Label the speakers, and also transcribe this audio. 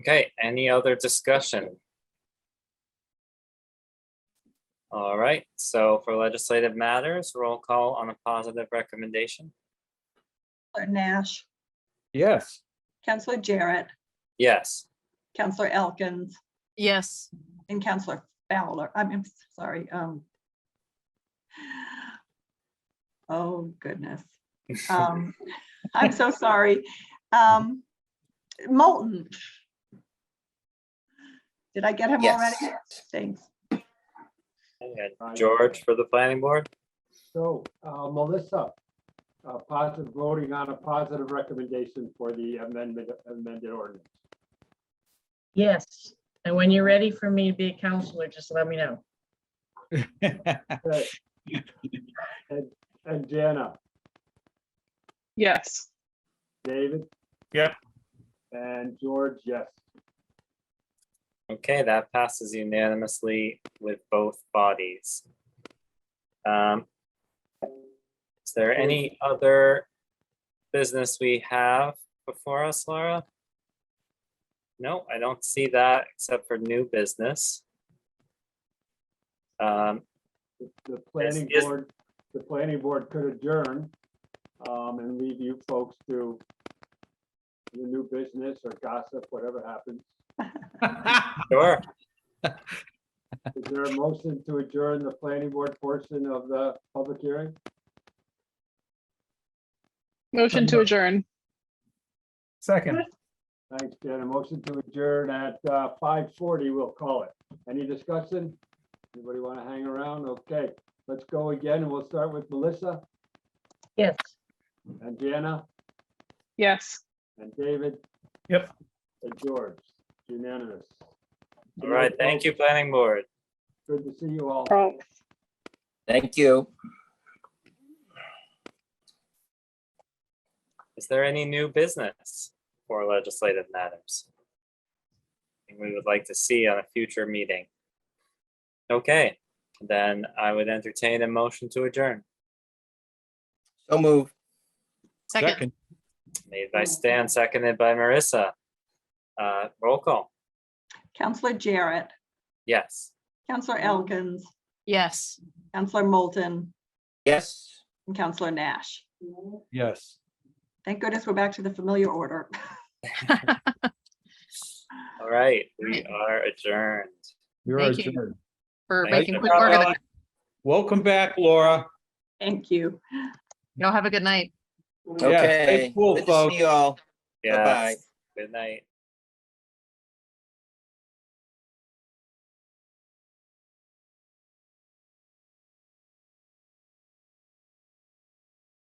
Speaker 1: Okay, any other discussion? All right, so for legislative matters, roll call on a positive recommendation.
Speaker 2: Counselor Nash,
Speaker 3: Yes.
Speaker 2: Counselor Jarrett,
Speaker 1: Yes,
Speaker 2: Counselor Elkins,
Speaker 4: Yes,
Speaker 2: and Counselor Fowler. I mean, sorry, um. Oh, goodness. Um, I'm so sorry. Um, Moulton. Did I get him already? Thanks.
Speaker 1: and George for the planning board.
Speaker 3: So uh, Melissa, uh, positive voting on a positive recommendation for the amendment amended ordinance.
Speaker 5: Yes, and when you're ready for me to be a counselor, just let me know.
Speaker 3: Okay. And- And Jana,
Speaker 6: Yes,
Speaker 3: David?
Speaker 7: Yep.
Speaker 3: And George, yes.
Speaker 1: Okay, that passes unanimously with both bodies. Um, Is there any other business we have before us, Laura? No, I don't see that except for new business. Um,
Speaker 3: The- The planning
Speaker 1: yes.
Speaker 3: board, the planning board could adjourn um, and leave you folks to your new business or gossip, whatever happens.
Speaker 1: Sure,
Speaker 3: Is there a motion to adjourn the planning board portion of the public hearing?
Speaker 6: motion to adjourn.
Speaker 7: Second,
Speaker 3: Thanks, Dan. A motion to adjourn at uh, five forty, we'll call it. Any discussion? Anybody want to hang around? Okay, let's go again, and we'll start with Melissa
Speaker 5: Yes.
Speaker 3: and Jana
Speaker 6: Yes.
Speaker 3: and David.
Speaker 7: Yep.
Speaker 3: And George, unanimous.
Speaker 1: all right, thank you, planning board.
Speaker 3: Good to see you all.
Speaker 6: Oh.
Speaker 8: Thank you.
Speaker 1: Is there any new business for legislative matters? Anything We would like to see on a future meeting. Okay, then I would entertain a motion to adjourn,
Speaker 8: So move.
Speaker 4: second,
Speaker 1: made by Stan, seconded by Marissa. Uh, roll call,
Speaker 2: Counselor Jarrett,
Speaker 1: yes.
Speaker 2: Counselor Elkins,
Speaker 4: yes.
Speaker 2: Counselor Moulton,
Speaker 8: Yes.
Speaker 2: and Counselor Nash.
Speaker 7: yes.
Speaker 2: Thank goodness we're back to the familiar order.
Speaker 1: All right, we are adjourned.
Speaker 7: You're
Speaker 4: Thank you.
Speaker 7: adjourned.
Speaker 4: For
Speaker 7: Thank
Speaker 4: making
Speaker 7: you,
Speaker 4: quick work of
Speaker 7: Laura.
Speaker 4: it.
Speaker 7: Welcome back, Laura.
Speaker 2: Thank you.
Speaker 4: Y'all have a good night.
Speaker 7: Yeah, stay
Speaker 8: Okay.
Speaker 7: cool,
Speaker 8: Good to
Speaker 7: folks.
Speaker 8: see you all. Bye-bye.
Speaker 1: Yes, good night.